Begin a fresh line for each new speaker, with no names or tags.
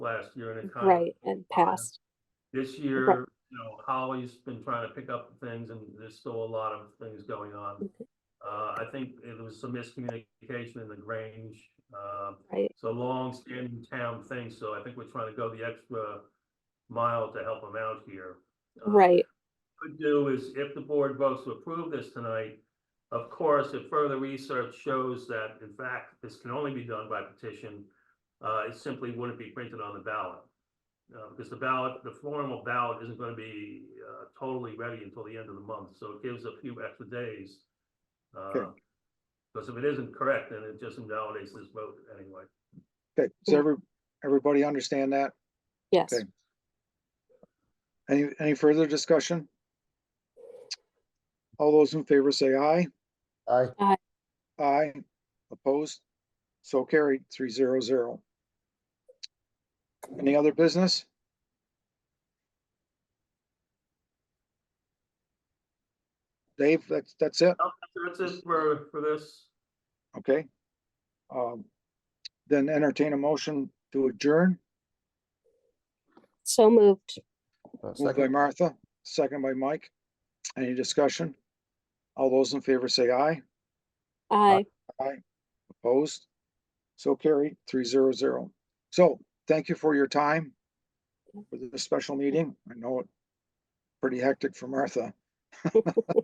last year and it kind of,
right, and passed.
this year, you know, Holly's been trying to pick up things and there's still a lot of things going on.
Okay.
Uh, I think it was some miscommunication in the Grange, um,
Right,
it's a long-standing town thing, so I think we're trying to go the extra mile to help them out here. Uh,
right,
could do is if the board votes to approve this tonight, of course, if further research shows that in fact this can only be done by petition, uh, it simply wouldn't be printed on the ballot. Uh, because the ballot, the formal ballot isn't gonna be, uh, totally ready until the end of the month, so it gives a few extra days. uh,
Okay.
Because if it isn't correct, then it just invalidates this vote anyway.
Okay, does
Yeah.
every, everybody understand that?
yes.
Okay. Any, any further discussion? All those in favor say aye.
Aye.
Aye. Opposed? So carried, three zero zero. Any other business? Dave, that's, that's it?
That's it for, for this.
Okay. Um, Then entertain a motion to adjourn,
So moved,
Uh,
moved by
Second,
Martha, second by Mike. Any discussion? All those in favor say aye.
aye,
Opposed? So carried, three zero zero. So thank you for your time for this special meeting. I know it pretty hectic for Martha.